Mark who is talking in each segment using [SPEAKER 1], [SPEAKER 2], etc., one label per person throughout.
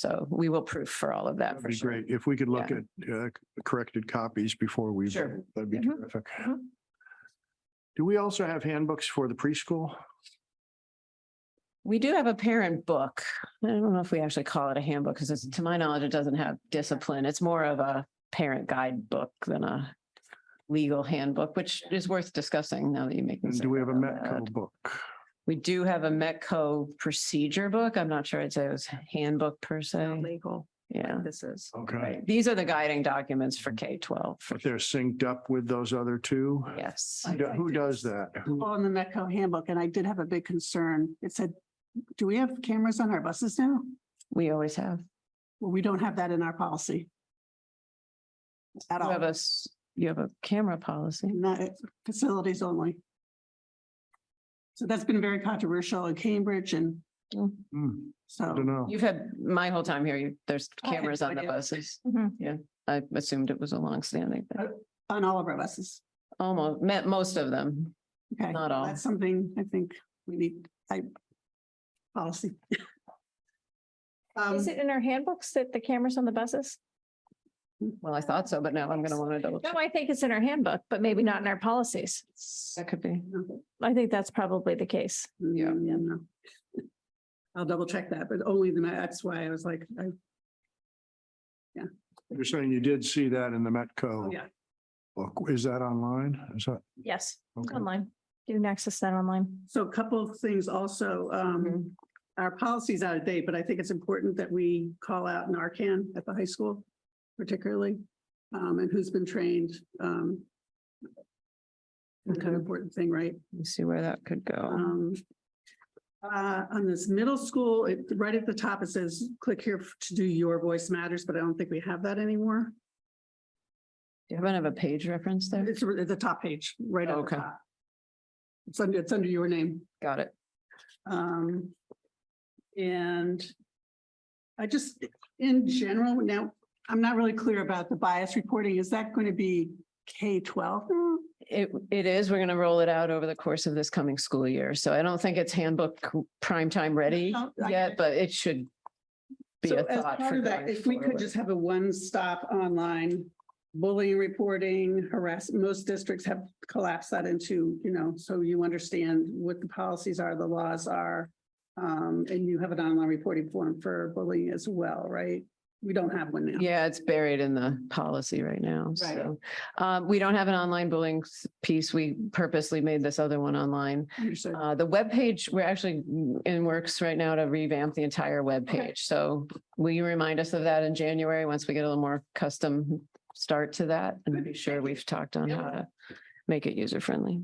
[SPEAKER 1] So we will proof for all of that
[SPEAKER 2] That'd
[SPEAKER 1] for
[SPEAKER 2] be
[SPEAKER 1] sure.
[SPEAKER 2] great. If we could look
[SPEAKER 1] Yeah.
[SPEAKER 2] at uh, corrected copies before we,
[SPEAKER 1] Sure.
[SPEAKER 2] vote, that'd be
[SPEAKER 1] Mhm.
[SPEAKER 2] terrific.
[SPEAKER 1] Mhm.
[SPEAKER 2] Do we also have handbooks for the preschool?
[SPEAKER 1] We do have a parent book. I don't know if we actually call it a handbook because it's, to my knowledge, it doesn't have discipline. It's more of a parent guidebook than a legal handbook, which is worth discussing now that you make me
[SPEAKER 2] And
[SPEAKER 1] say
[SPEAKER 2] do we have a
[SPEAKER 1] that out loud.
[SPEAKER 2] Metco book?
[SPEAKER 1] We do have a Metco procedure book. I'm not sure I'd say it was handbook per se.
[SPEAKER 3] legal,
[SPEAKER 1] Yeah.
[SPEAKER 3] this is.
[SPEAKER 2] Okay.
[SPEAKER 1] Right. These are the guiding documents for
[SPEAKER 2] Mm-hmm.
[SPEAKER 1] K twelve.
[SPEAKER 2] If they're synced up with those other two?
[SPEAKER 1] Yes.
[SPEAKER 2] Who do- Who does that? Who-
[SPEAKER 4] on the Metco handbook, and I did have a big concern. It said, do we have cameras on our buses now?
[SPEAKER 1] We always have.
[SPEAKER 4] Well, we don't have that in our policy. At
[SPEAKER 1] You have a,
[SPEAKER 4] all,
[SPEAKER 1] s- you have a camera policy.
[SPEAKER 4] not facilities only. So that's been very controversial in Cambridge and
[SPEAKER 2] Hmm, I don't
[SPEAKER 4] so,
[SPEAKER 2] know.
[SPEAKER 1] You've had, my whole time here, you, there's
[SPEAKER 4] I had
[SPEAKER 1] cameras
[SPEAKER 4] no
[SPEAKER 1] on the
[SPEAKER 4] idea.
[SPEAKER 1] buses.
[SPEAKER 3] Mhm.
[SPEAKER 1] Yeah, I assumed it was a longstanding, thing.
[SPEAKER 4] on all of our buses.
[SPEAKER 1] almost, met most of them.
[SPEAKER 4] Okay.
[SPEAKER 1] Not all.
[SPEAKER 4] That's something I think we need, I, policy. Um,
[SPEAKER 3] Is it in our handbooks that the cameras on the buses?
[SPEAKER 1] Well, I thought so, but now I'm gonna want to double.
[SPEAKER 3] No, I think it's in our handbook, but maybe not in our policies.
[SPEAKER 1] That could be.
[SPEAKER 3] I think that's probably the case.
[SPEAKER 1] Yeah.
[SPEAKER 4] Mm, no. I'll double check that, but only the, that's why I was like, I
[SPEAKER 2] You're saying you did see that in the
[SPEAKER 4] Oh,
[SPEAKER 2] Metco
[SPEAKER 4] yeah.
[SPEAKER 2] book. Is that online? Is that?
[SPEAKER 3] Yes,
[SPEAKER 2] okay?
[SPEAKER 3] online. You can access that online.
[SPEAKER 4] So a couple of things also, um,
[SPEAKER 1] Mhm.
[SPEAKER 4] our policy's out of date, but I think it's important that we call out Narcan at the high school particularly, um, and who's been trained, um, it's an
[SPEAKER 1] Okay.
[SPEAKER 4] important thing, right?
[SPEAKER 1] Let me see where that could go.
[SPEAKER 4] Um, uh, on this middle school, it, right at the top, it says, click here to do your voice matters, but I don't think we have that anymore.
[SPEAKER 1] Do you happen to have a page reference there?
[SPEAKER 4] It's at the top page, right at the
[SPEAKER 1] Okay.
[SPEAKER 4] top. It's under, it's under your name.
[SPEAKER 1] Got it.
[SPEAKER 4] Um, and I just, in general, now, I'm not really clear about the bias reporting. Is that going to be K twelve?
[SPEAKER 1] It, it is, we're gonna roll it out over the course of this coming school year, so I don't think it's handbook prime time ready
[SPEAKER 4] Oh, I-
[SPEAKER 1] yet, but it should be
[SPEAKER 4] So
[SPEAKER 1] a
[SPEAKER 4] as
[SPEAKER 1] thought
[SPEAKER 4] part
[SPEAKER 1] for
[SPEAKER 4] of that,
[SPEAKER 1] going
[SPEAKER 4] if we could
[SPEAKER 1] forward.
[SPEAKER 4] just have a one-stop online bullying reporting, harass, most districts have collapsed that into, you know, so you understand what the policies are, the laws are. Um, and you have an online reporting form for bullying as well, right? We don't have one now.
[SPEAKER 1] Yeah, it's buried in the policy right now, so. Um, we don't have an online bullying s- piece. We purposely made this other one online.
[SPEAKER 4] Understood.
[SPEAKER 1] Uh, the webpage, we're actually in works right now to revamp the entire webpage. So will you remind us of that in January, once we get a little more custom start to that? And be sure we've talked on how to make it user friendly.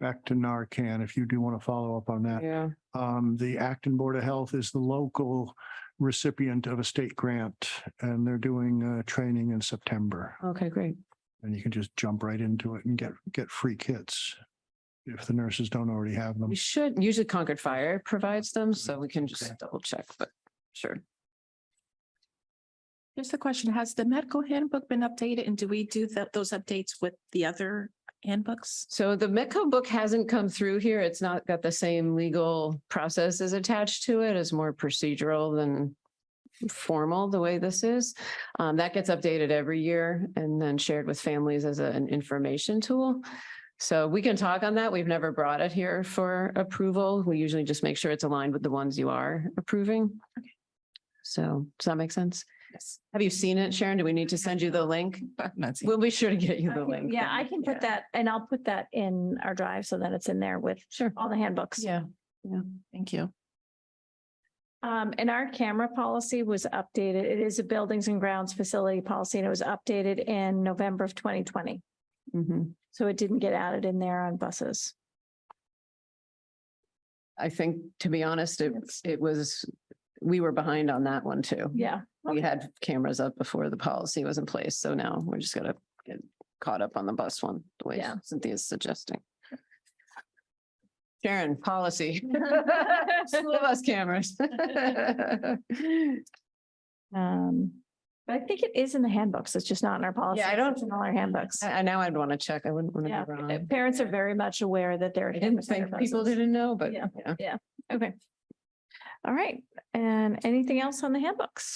[SPEAKER 2] Back to Narcan, if you do want to follow up on that.
[SPEAKER 1] Yeah.
[SPEAKER 2] Um, the Acton Board of Health is the local recipient of a state grant and they're doing uh training in September.
[SPEAKER 1] Okay, great.
[SPEAKER 2] And you can just jump right into it and get, get free kits if the nurses don't already have them.
[SPEAKER 1] We should, usually Concord Fire provides them, so we can just
[SPEAKER 2] Okay.
[SPEAKER 1] double check, but sure.
[SPEAKER 5] Here's the question. Has the medical handbook been updated and do we do that, those updates with the other handbooks?
[SPEAKER 1] So the Metco book hasn't come through here. It's not got the same legal processes attached to it. It's more procedural than formal, the way this is. Um, that gets updated every year and then shared with families as a- an information tool. So we can talk on that. We've never brought it here for approval. We usually just make sure it's aligned with the ones you are approving. So does that make sense?
[SPEAKER 5] Yes.
[SPEAKER 1] Have you seen it, Sharon? Do we need to send you the link?
[SPEAKER 5] Not
[SPEAKER 1] We'll be sure to get you the
[SPEAKER 3] I can-
[SPEAKER 1] link.
[SPEAKER 3] Yeah,
[SPEAKER 1] then.
[SPEAKER 3] I can put
[SPEAKER 1] Yeah.
[SPEAKER 3] that and I'll put that in our drive so that it's in there with
[SPEAKER 1] Sure.
[SPEAKER 3] all the handbooks.
[SPEAKER 1] Yeah.
[SPEAKER 5] Thank you.
[SPEAKER 3] Um, and our camera policy was updated. It is a buildings and grounds facility policy and it was updated in November of twenty twenty.
[SPEAKER 1] Mhm.
[SPEAKER 3] So it didn't get added in there on buses.
[SPEAKER 1] I think, to be honest, it,
[SPEAKER 3] Yes.
[SPEAKER 1] it was, we were behind on that one too.
[SPEAKER 3] Yeah.
[SPEAKER 1] We had cameras up before the policy was in place, so now we're just gonna get caught up on the bus one, the way
[SPEAKER 3] Yeah.
[SPEAKER 1] Cynthia's suggesting. Sharon, policy. School bus cameras.
[SPEAKER 3] Um, but I think it is in the handbooks. It's just not in our policy.
[SPEAKER 1] I don't-
[SPEAKER 3] It's in all our handbooks.
[SPEAKER 1] I, I now I'd want to check. I wouldn't want
[SPEAKER 3] Yeah,
[SPEAKER 1] to be wrong.
[SPEAKER 3] parents are very much aware that there. are
[SPEAKER 1] I didn't
[SPEAKER 3] cameras on
[SPEAKER 1] think
[SPEAKER 3] their
[SPEAKER 1] people
[SPEAKER 3] buses.
[SPEAKER 1] didn't know, but
[SPEAKER 3] Yeah.
[SPEAKER 1] yeah.
[SPEAKER 3] Okay. All right. And anything else on the handbooks?